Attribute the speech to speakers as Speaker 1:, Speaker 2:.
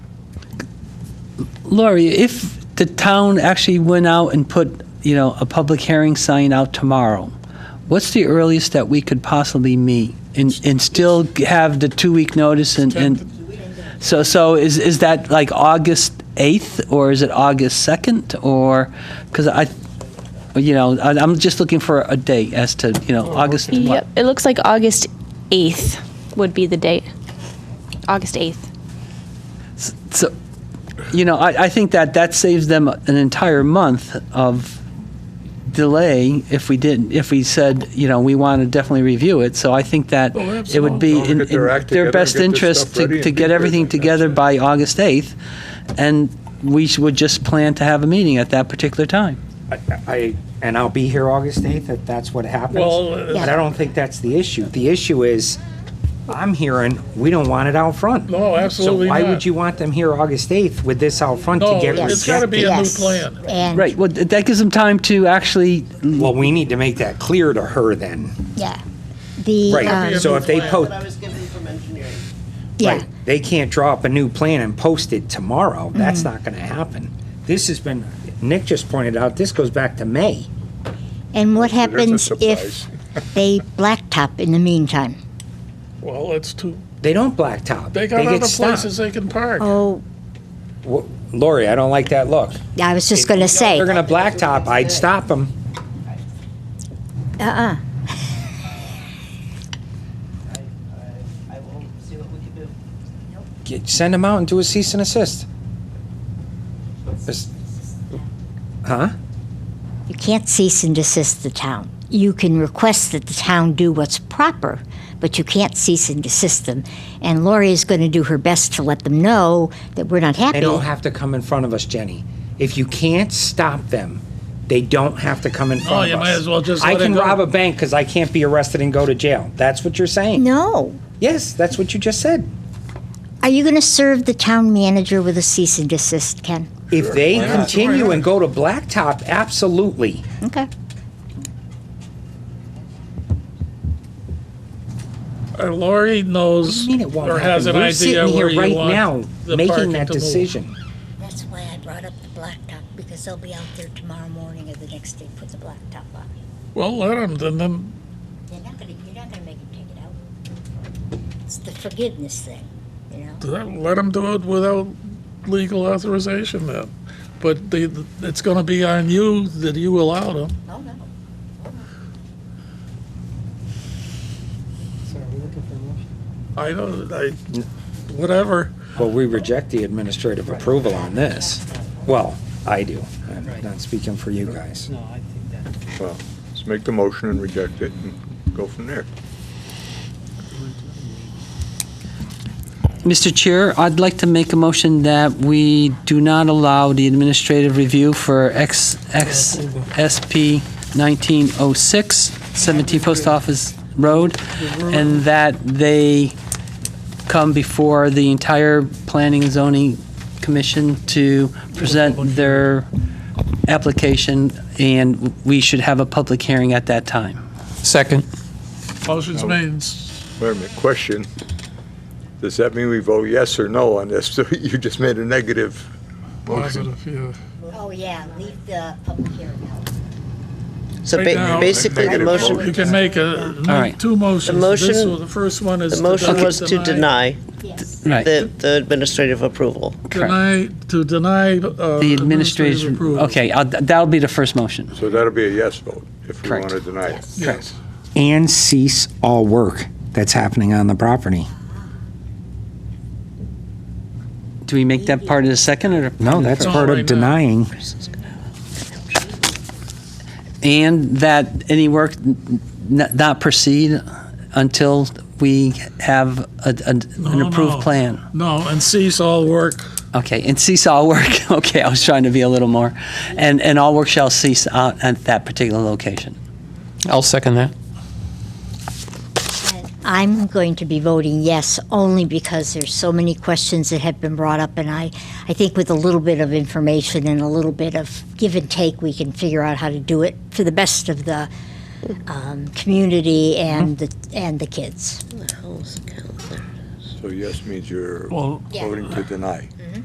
Speaker 1: Lori, if the town actually went out and put, you know, a public hearing sign out tomorrow, what's the earliest that we could possibly meet and, and still have the two-week notice and, and, so, so is, is that like August 8th or is it August 2nd or, because I, you know, I- I'm just looking for a date as to, you know, August what?
Speaker 2: Yep, it looks like August 8th would be the date. August 8th.
Speaker 1: So, you know, I, I think that that saves them an entire month of delay if we didn't, if we said, you know, we want to definitely review it. So I think that it would be
Speaker 3: Don't
Speaker 1: in,
Speaker 3: get their
Speaker 1: in
Speaker 3: act
Speaker 1: their
Speaker 3: together,
Speaker 1: best
Speaker 3: get this
Speaker 1: interest
Speaker 3: stuff ready
Speaker 1: to,
Speaker 3: and
Speaker 1: to
Speaker 3: be
Speaker 1: get
Speaker 3: good.
Speaker 1: everything together by August 8th. And we sh- would just plan to have a meeting at that particular time.
Speaker 4: I- I, and I'll be here August 8th, if that's what happens.
Speaker 3: Well, uh,
Speaker 4: But I don't think that's the issue. The issue is, I'm hearing, we don't want it out front.
Speaker 3: No, absolutely
Speaker 4: So why
Speaker 3: not.
Speaker 4: would you want them here August 8th with this out front to
Speaker 3: No,
Speaker 4: get
Speaker 3: it's gotta be
Speaker 4: rejected?
Speaker 3: a new
Speaker 5: Yes.
Speaker 3: plan.
Speaker 5: And,
Speaker 1: Right, well, th- that gives them time to actually,
Speaker 4: Well, we need to make that clear to her then.
Speaker 5: yeah, the, um,
Speaker 4: Right, so if they
Speaker 6: What
Speaker 4: post,
Speaker 6: I was given from engineering.
Speaker 5: yeah,
Speaker 4: right, they can't draw up a new plan and post it tomorrow.
Speaker 5: Mm-hmm.
Speaker 4: That's not gonna happen. This has been, Nick just pointed out, this goes back to May.
Speaker 5: and what
Speaker 3: There's a
Speaker 5: happens if they blacktop in the meantime?
Speaker 3: Well, it's too,
Speaker 4: They don't blacktop.
Speaker 3: they got
Speaker 4: get
Speaker 3: other
Speaker 4: stopped.
Speaker 3: places they can park.
Speaker 5: Oh,
Speaker 4: Wha- Lori, I don't like that look.
Speaker 5: I was just gonna say,
Speaker 4: They're gonna blacktop, I'd stop them.
Speaker 5: uh-uh,
Speaker 6: I, I, I will see what we can do.
Speaker 4: Get- Send them out and do a cease and assist. Just- Huh?
Speaker 5: you can't cease and desist the town. You can request that the town do what's proper, but you can't cease and desist them. And Lori is gonna do her best to let them know that we're not
Speaker 4: They
Speaker 5: happy.
Speaker 4: don't have to come in front of us, Jenny. If you can't stop them, they don't have to come in front
Speaker 3: Oh, you
Speaker 4: of us.
Speaker 3: might as well just
Speaker 4: I
Speaker 3: let it
Speaker 4: can
Speaker 3: go.
Speaker 4: rob a bank because I can't be arrested and go to jail. That's what you're saying?
Speaker 5: No,
Speaker 4: Yes, that's what you just said.
Speaker 5: are you gonna serve the town manager with a cease and desist, Ken?
Speaker 4: If they continue and go to blacktop, absolutely.
Speaker 5: Okay.
Speaker 3: Or Uh, Lori
Speaker 4: I
Speaker 3: knows
Speaker 4: mean, it won't
Speaker 3: or has
Speaker 4: happen.
Speaker 3: an
Speaker 4: We're
Speaker 3: idea
Speaker 4: sitting here
Speaker 3: where you
Speaker 4: right now,
Speaker 3: want the
Speaker 4: making
Speaker 3: parking
Speaker 4: that
Speaker 3: to move.
Speaker 4: decision.
Speaker 5: That's why I brought up the blacktop, because they'll be out there tomorrow morning or the next day, put the blacktop on.
Speaker 3: Well, let them, then, then,
Speaker 5: They're not gonna, you're not gonna make them take it out. It's the forgiveness thing, you know?
Speaker 3: let them do it without legal authorization then. But the, it's gonna be on you that you allow them.
Speaker 5: Oh, no.
Speaker 6: So are we looking for a motion?
Speaker 3: I don't, I, whatever.
Speaker 4: Well, we reject the administrative approval on this. Well, I do. I'm not speaking for you guys.
Speaker 6: No, I think that.
Speaker 7: Well, let's make the motion and reject it and go from there.
Speaker 1: Mr. Chair, I'd like to make a motion that we do not allow the administrative review for X, X, SP 1906, 17 oh Post Office Road, and that they come before the entire Planning and Zoning Commission to present their application, and we should have a public hearing at that time. Second.
Speaker 3: Motion's made. s-
Speaker 7: Wait a minute, question. Does that mean we vote yes or no on this? You just made a negative motion.
Speaker 3: Positive, yeah.
Speaker 5: Oh, yeah, leave the public hearing out.
Speaker 8: So
Speaker 3: Right now,
Speaker 8: ba- basically, the
Speaker 7: negative
Speaker 8: motion,
Speaker 3: You can make a,
Speaker 1: right.
Speaker 3: two motions.
Speaker 8: The
Speaker 3: This
Speaker 8: motion-
Speaker 3: one- The first one is.
Speaker 8: the motion
Speaker 3: deny-
Speaker 8: was to deny
Speaker 5: Yes.
Speaker 1: Right.
Speaker 8: the, the administrative approval.
Speaker 3: Deny, to deny. uh,
Speaker 1: The administration,
Speaker 3: approval.
Speaker 1: okay, I'll- that'll be the first motion.
Speaker 7: So that'll be a yes vote if we
Speaker 1: Correct.
Speaker 7: want to deny it.
Speaker 3: Yes.
Speaker 4: And cease all work that's happening on the property.
Speaker 1: Do we make that part of the second or?
Speaker 4: No, that's
Speaker 3: No,
Speaker 4: part
Speaker 3: right now.
Speaker 4: of denying.
Speaker 1: And that any work n- n- not proceed until we have a- a- an
Speaker 3: No,
Speaker 1: approved
Speaker 3: no.
Speaker 1: plan?
Speaker 3: No, and cease all work.
Speaker 1: Okay, and cease all work, okay, I was trying to be a little more, and, and all work shall cease out at that particular location.
Speaker 9: I'll second that.
Speaker 5: I'm going to be voting yes, only because there's so many questions that have been brought up, and I, I think with a little bit of information and a little bit of give and take, we can figure out how to do it for the best of the um, community and the and the kids.
Speaker 7: So yes means you're
Speaker 3: Well,
Speaker 7: voting to deny.